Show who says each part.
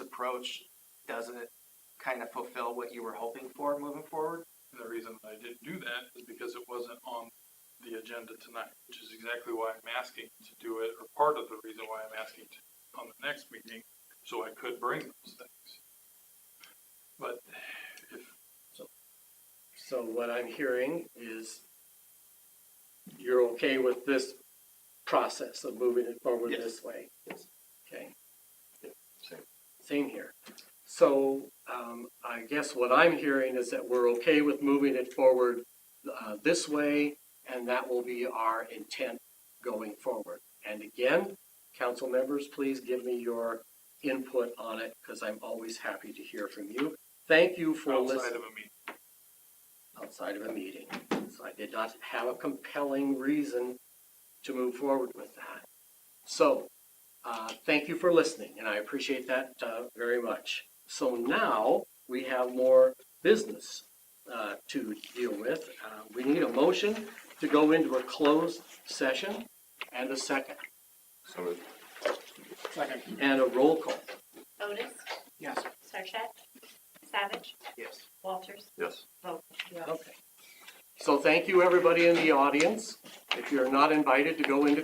Speaker 1: approach doesn't kind of fulfill what you were hoping for moving forward?
Speaker 2: And the reason I didn't do that is because it wasn't on the agenda tonight, which is exactly why I'm asking to do it, or part of the reason why I'm asking to, on the next meeting, so I could bring those things. But if,
Speaker 3: So what I'm hearing is you're okay with this process of moving it forward
Speaker 1: Yes.
Speaker 3: this way?
Speaker 1: Yes.
Speaker 3: Okay.
Speaker 2: Same.
Speaker 3: Same here. So, um, I guess what I'm hearing is that we're okay with moving it forward, uh, this way, and that will be our intent going forward. And again, council members, please give me your input on it, because I'm always happy to hear from you. Thank you for listening
Speaker 2: outside of a meeting,
Speaker 3: outside of a meeting. So I did not have a compelling reason to move forward with that. So, uh, thank you for listening, and I appreciate that, uh, very much. So now we have more business, uh, to deal with. Uh, we need a motion to go into a closed session and a second,
Speaker 4: So moved.
Speaker 3: and a roll call.
Speaker 5: Otis?
Speaker 1: Yes.
Speaker 5: Sarchet? Savage?
Speaker 1: Yes.
Speaker 5: Walters?
Speaker 4: Yes.
Speaker 3: Okay. So thank you, everybody in the audience. If you're not invited to go into